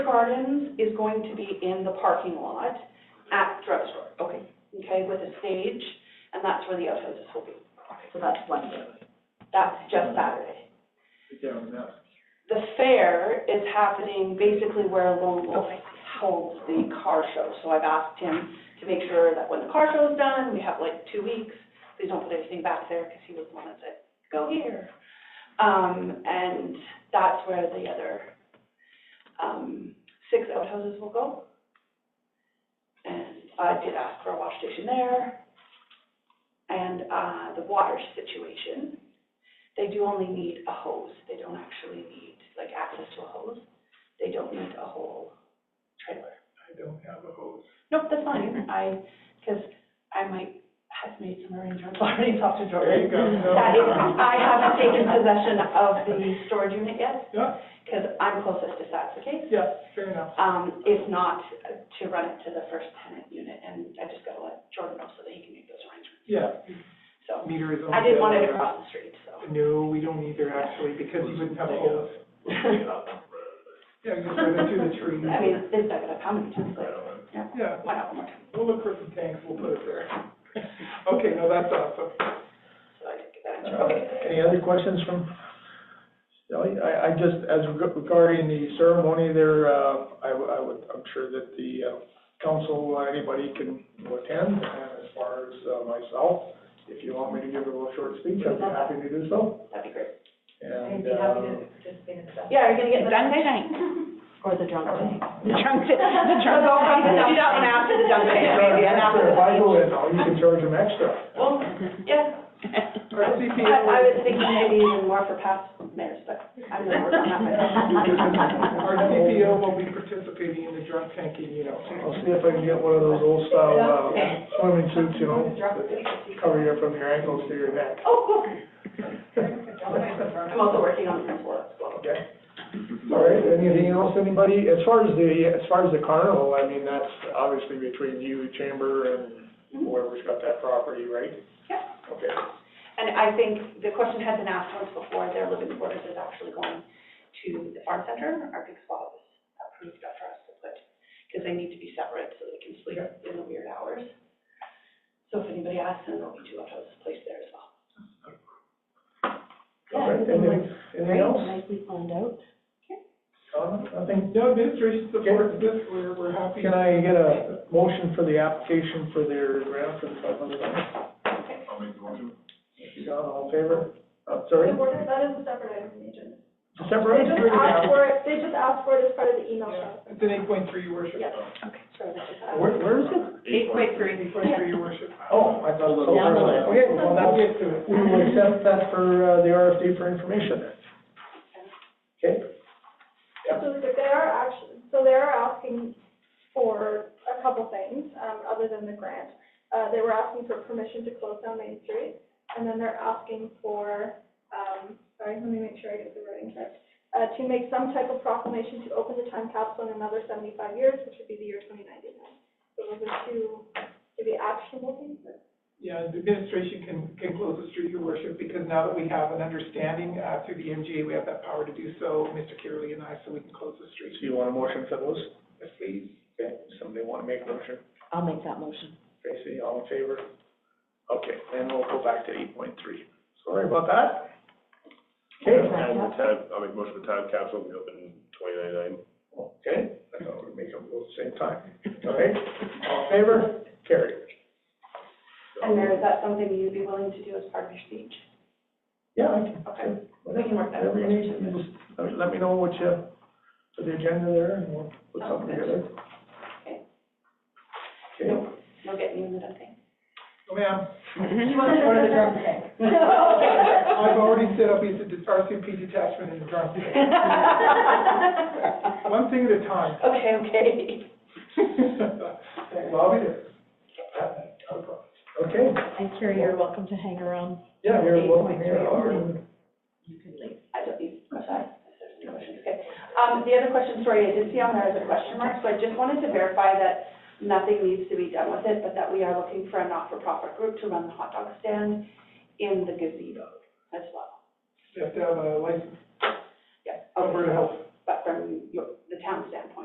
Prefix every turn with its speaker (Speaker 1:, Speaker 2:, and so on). Speaker 1: Gardens is going to be in the parking lot at drugstore,
Speaker 2: Okay.
Speaker 1: okay, with a stage, and that's where the outfits will be. So that's one day. That's just Saturday. The fair is happening basically where Lone Wolf holds the car show. So I've asked him to make sure that when the car show is done, we have like two weeks, please don't put anything back there, because he was the one that said, go here. Um, and that's where the other, um, six outhouses will go. And I did ask for a wash station there. And, uh, the water situation, they do only need a hose, they don't actually need, like, access to a hose. They don't need a whole trailer.
Speaker 3: I don't have a hose.
Speaker 1: Nope, that's fine, I, because I might have made some arrangements already, talked to Jordan. That is, I haven't taken possession of the storage unit yet,
Speaker 3: Yeah,
Speaker 1: because I'm closest if that's the case.
Speaker 3: yeah, fair enough.
Speaker 1: Um, if not, uh, to run it to the first tenant unit, and I just gotta let Jordan know so that he can make those arrangements.
Speaker 3: Yeah,
Speaker 1: So,
Speaker 3: meter is on.
Speaker 1: I didn't want it across the street, so.
Speaker 3: No, we don't either actually, because you wouldn't have a hose. Yeah, you just run it through the trees.
Speaker 1: I mean, they've dug it up how many times, like, yeah,
Speaker 3: Yeah,
Speaker 1: why not one more time?
Speaker 3: we'll look for some tanks, we'll put it there. Okay, no, that's awesome.
Speaker 1: So I did get that answer, okay.
Speaker 3: Uh, Any other questions from Sally? I, I just, as reg- regarding the ceremony there, uh, I, w- I would, I'm sure that the, uh, council, uh, anybody can attend, and as far as uh, myself, if you want me to give a little short speech, I'd be happy to do so,
Speaker 1: That'd be great.
Speaker 3: and, uh,
Speaker 1: Yeah, are you gonna get the?
Speaker 2: Dunk tank.
Speaker 4: Or the drunk tank.
Speaker 2: The drunk, ta- the drunk.
Speaker 1: Let's all come to do that one after the dunk tank, maybe, and after the.
Speaker 3: If I go in, now, you can charge them extra.
Speaker 1: Well, yeah, I, I was thinking maybe even more for past mayors, but I'm gonna work on that myself.
Speaker 3: Our CPO will be participating in the drunk tanking, you know. I'll see if I can get one of those old style, uh, swimming suits, you know, that cover you from your ankles to your neck.
Speaker 1: Oh, cool. I'm also working on the floor as well.
Speaker 3: Okay. All right, anything else, anybody? As far as the, as far as the carnival, I mean, that's obviously between you, chamber, and
Speaker 1: Mm-hmm.
Speaker 3: whoever's got that property, right?
Speaker 1: Yeah.
Speaker 3: Okay.
Speaker 1: And I think the question had been asked once before, their living quarters is actually going to the farm center. Our big spa was approved for us to put, because they need to be separate so they can sleep in the weird hours. So if anybody asks, then there'll be two outhouses placed there as well.
Speaker 3: All right, and then, anything
Speaker 4: Great,
Speaker 3: else?
Speaker 4: nicely planned out.
Speaker 3: Tom, Nothing? No, administration supports this, we're, we're happy. Can I get a motion for the application for their grant for the five hundred dollars? John, all in favor? Uh, sorry?
Speaker 5: The border, that is a separate item from the agenda.
Speaker 3: December?
Speaker 5: They just asked for it, they just asked for it as part of the email shot.
Speaker 3: It's an eight point three, your worship.
Speaker 5: Yes.
Speaker 1: Sorry, that's just-
Speaker 3: Where, where is it?
Speaker 2: Eight point three.
Speaker 3: Eight point three, your worship. Oh, I thought it was.
Speaker 4: Down the list.
Speaker 3: Okay, well, that's it. We will accept that for, uh, the RFD for information then. Okay? Yep.
Speaker 5: So they are actually, so they are asking for a couple things, um, other than the grant. Uh, they were asking for permission to close down Main Street, and then they're asking for, um, sorry, let me make sure I get the wording correct. Uh, to make some type of proclamation to open the time capsule in another seventy-five years, which would be the year twenty ninety-nine. So those are two, to be actionable things.
Speaker 6: Yeah, the administration can, can close the street, your worship, because now that we have an understanding, uh, through the MGA, we have that power to do so, Mr. Kirley and I, so we can close the
Speaker 3: So
Speaker 6: street.
Speaker 3: you want a motion for those?
Speaker 6: Yes, please.
Speaker 3: Okay, somebody want to make a motion?
Speaker 4: I'll make that motion.
Speaker 3: Tracy, all in favor? Okay, then we'll go back to eight point three. Sorry about that. Okay,
Speaker 7: And
Speaker 4: Time
Speaker 7: the
Speaker 4: cap-
Speaker 7: time, I'll make motion for time capsule, we open twenty ninety-nine.
Speaker 3: okay, I thought we'd make them both at the same time. All right, all in favor? Carry.
Speaker 1: And Mayor, is that something you'd be willing to do as part of your speech?
Speaker 3: Yeah, I can.
Speaker 1: Okay. We can work that out.
Speaker 3: Whatever you need, you just, let me- uh, let me know what you, for the agenda there, and we'll put something together.
Speaker 1: Okay.
Speaker 3: Okay,
Speaker 1: We'll get you in the dunk tank.
Speaker 6: Oh, ma'am,
Speaker 1: Okay.
Speaker 6: I've already set up, it's a dis- RCMP detachment in the drunk tank. One thing at a time.
Speaker 1: Okay, okay.
Speaker 6: Well, I'll be there.
Speaker 3: okay,
Speaker 4: And Carrie, you're welcome to hang around.
Speaker 3: yeah, you're welcome here.
Speaker 4: 8.3
Speaker 3: I'll-
Speaker 4: or- You can leave.
Speaker 1: I don't need, I'm sorry, there's no questions, okay. Um, the other question, sorry, I did see on there as a question mark, so I just wanted to verify that nothing needs to be done with it, but that we are looking for a not-for-profit group to run the hot dog stand in the gazebo as well.
Speaker 6: You have to have a uh, license,
Speaker 1: Yeah,
Speaker 6: Alberta
Speaker 1: okay,
Speaker 6: Health
Speaker 1: but from your, the town standpoint.